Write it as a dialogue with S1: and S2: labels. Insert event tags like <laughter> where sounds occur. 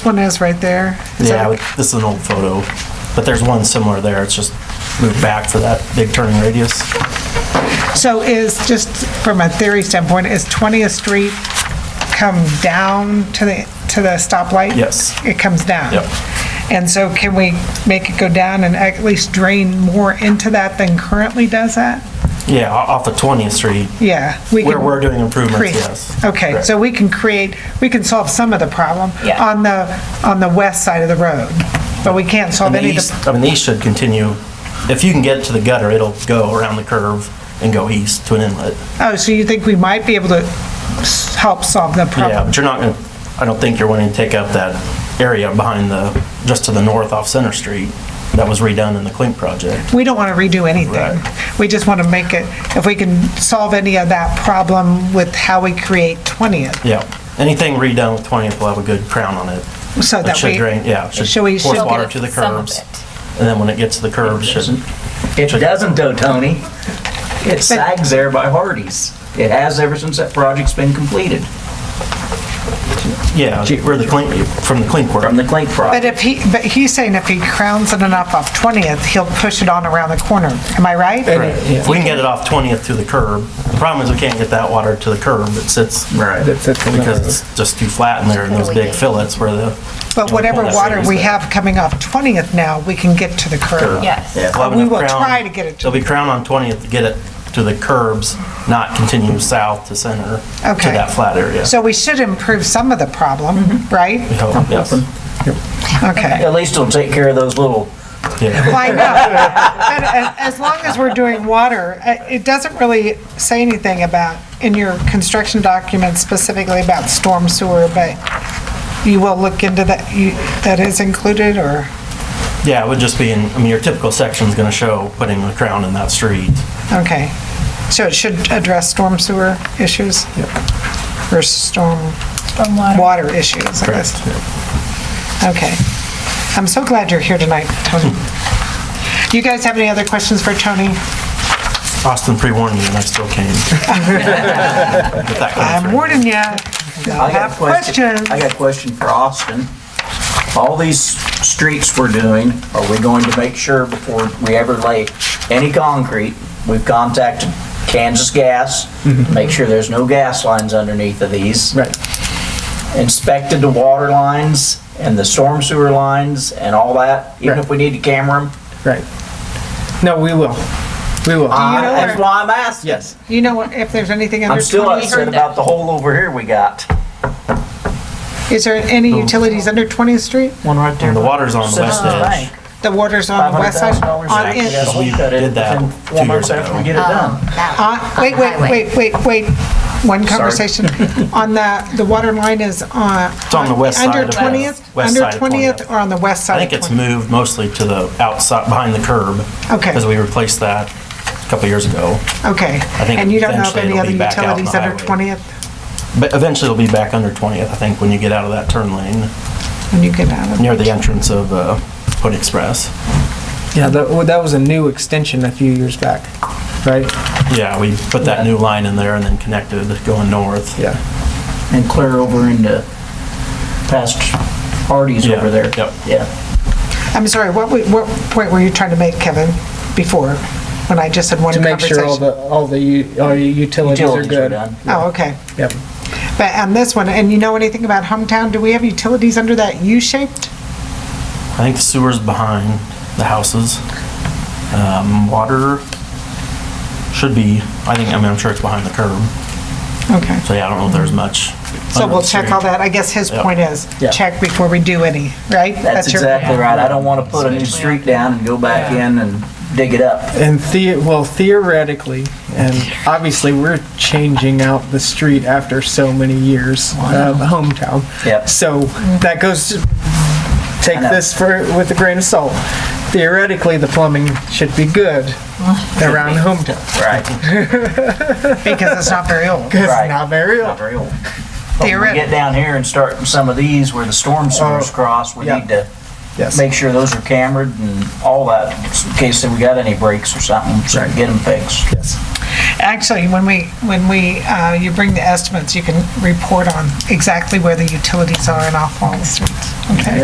S1: One is right there. Is
S2: Yeah,
S1: that-
S2: but this is an old photo, but there's one similar there. It's just moved back for that big turning radius.
S1: So is, just from a theory standpoint, is 20th Street come down to the, to the stoplight?
S2: Yes.
S1: It comes down?
S2: Yep.
S1: And so can we make it go down and at least drain more into that than currently does that?
S2: Yeah, o- off of 20th Street,
S1: Yeah. we
S2: where
S1: can
S2: we're doing improvements,
S1: create-
S2: yes.
S1: Okay, so
S2: Correct.
S1: we can create, we can solve some of the problem
S3: Yeah.
S1: on the, on the west side of the road, but we can't solve
S2: And the
S1: any of
S2: east,
S1: the
S2: I mean, the east should continue. If you can get to the gutter, it'll go around the curve and go east to an inlet.
S1: Oh, so you think we might be able to s- help solve the
S2: Yeah,
S1: problem?
S2: but you're not gonna, I don't think you're wanting to take up that area behind the, just to the north off Center Street that was redone in the Clink project.
S1: We don't want to redo
S2: Right.
S1: anything. We just want to make it, if we can solve any of that problem with how we create 20th,
S2: Yeah, anything redone with 20th will have a good crown on it.
S1: so
S2: It
S1: that
S2: should
S1: we...
S2: drain, yeah, it
S1: Should we-
S2: should force
S1: should-
S2: water to the
S3: Some of
S2: curbs.
S3: it.
S2: And then when it gets to the curbs, should,
S4: It doesn't though, Tony. It sags there by Hardee's. It has ever since that project's been completed
S2: yeah, where the clean, from the clean
S4: from the
S2: work.
S4: Clink
S1: But
S4: project.
S1: if he, but he's saying if he crowns it enough off 20th, he'll push it on around the corner. Am I right?
S2: Right. If we can get it off 20th to the curb, the problem is we can't get that water to the curb, it sits
S4: Right.
S2: because it's just too flat in there in those big fillets where the.
S1: But whatever water we have coming off 20th now, we can get to the curb.
S3: Yes.
S4: Yeah.
S2: We'll have
S1: We
S2: enough
S1: will
S2: crown-
S1: try to get it to-
S2: There'll be crown on 20th to get it to the curbs, not continue south to center to
S1: Okay.
S2: that flat area.
S1: So we should improve some of the problem, right? <laughs>
S2: So, yes.
S1: Okay.
S4: At least it'll take care of those little,
S2: Yeah.
S1: Well, I know. But a- as long as we're doing water, uh, it doesn't really say anything about, in your construction documents specifically about storm sewer, but you will look into that, you- that is included, or?
S2: Yeah, it would just be in, I mean, your typical section's gonna show putting the crown in that street.
S1: Okay. So it should address storm sewer issues? Or storm water issues, I guess.
S2: Correct.
S1: Okay. I'm so glad you're here tonight, Tony. You guys have any other questions for Tony?
S2: Austin pre-warned me and I still came. But that comes
S1: I'm
S2: from-
S1: warning you. You'll
S4: I got
S1: have
S4: a question.
S1: questions.
S4: I got a question for Austin. All these streets we're doing, are we going to make sure before we ever lay any concrete, we've contacted Kansas Gas, make sure there's no gas lines underneath of these. Right. Inspected the water lines and the storm sewer lines and all that, even if we need to camera them.
S5: Right. No, we will. We will.
S4: I-
S1: know
S4: That's
S1: where-
S4: why I'm asking.
S5: Yes.
S1: Do you know what- if there's anything
S4: I'm
S1: under
S4: still
S1: 20?
S4: upset about the hole over here we got.
S1: Is there any utilities under 20th Street?
S4: One right there.
S2: And the water's on the
S1: Oh,
S2: west edge.
S1: The water's on the west side?
S4: $500,000
S1: On
S4: back. Um,
S1: in-
S2: We did that
S4: Within
S2: two
S4: four months
S2: years
S4: after
S2: ago.
S4: we get it done.
S1: on- Wait, wait, wait, wait, wait. One conversation. On the, the water line is on... It's
S2: on the west side
S1: Under
S2: of the-
S1: 20th?
S2: west side
S1: Under
S2: of
S1: 20th
S2: 20th.
S1: or on the west
S2: I
S1: side?
S2: think
S1: of
S2: it's
S1: 20th?
S2: moved mostly to the outside, behind the curb.
S1: Okay.
S2: Because we replaced that a couple years ago.
S1: Okay.
S2: think
S1: And you don't know of
S2: eventually
S1: any
S2: it'll
S1: other
S2: be back out on
S1: utilities
S2: the
S1: under
S2: highway.
S1: 20th
S2: But eventually it'll be back under 20th, I think, when you get out of that turn lane,
S1: when you get out of...
S2: near the entrance of uh, Hood Express.
S5: Yeah, that, well, that was a new extension a few years back, right?
S2: Yeah, we put that new line in there and then connected going north.
S5: Yeah.
S4: and clear over into past Hardee's
S2: Yeah,
S4: over there.
S2: yep.
S4: Yeah.
S1: I'm sorry, what, wa- what point were you trying to make, Kevin, before, when I just had one
S5: To
S1: conversation?
S5: make sure all the all the u- all your utilities,
S4: Utilities
S5: are
S4: were
S5: good.
S4: done.
S1: Oh, okay.
S5: Yep.
S1: But on this one, and you know anything about hometown, do we have utilities under that U-shaped?
S2: I think the sewer's behind the houses. Um, Water should be, I think, I mean, I'm sure it's behind the curb.
S1: Okay.
S2: So yeah, I don't know if there's much.
S1: So
S2: under
S1: we'll
S2: the
S1: check
S2: street.
S1: all that. I guess his
S2: Yep.
S1: point is,
S5: Yeah.
S1: check before we do any, right?
S4: That's
S1: your-
S4: exactly right. I don't want to put a new street down and go back in and dig it up.
S5: And the, well, theoretically, and obviously, we're changing out the street after so many years of hometown.
S4: Yep.
S5: So that goes. To, take
S4: I know.
S5: this for with a grain of salt. Theoretically, the plumbing should be good around hometown.
S4: Right.
S1: Because it's not very old.
S5: It's
S4: Right.
S5: not very old.
S4: Not very old. <laughs> But when we
S1: Theoretic-
S4: get down here and start in some of these where the storm sewers
S5: Oh,
S4: cross, we
S5: yeah.
S4: need to
S5: Yes.
S4: make sure those are cambered and all that in case that we got any breaks or something, so we can get them fixed.
S5: yes.
S1: Actually, when we, when we, uh, you bring the estimates, you can report on exactly where the utilities are in off all the streets. Okay?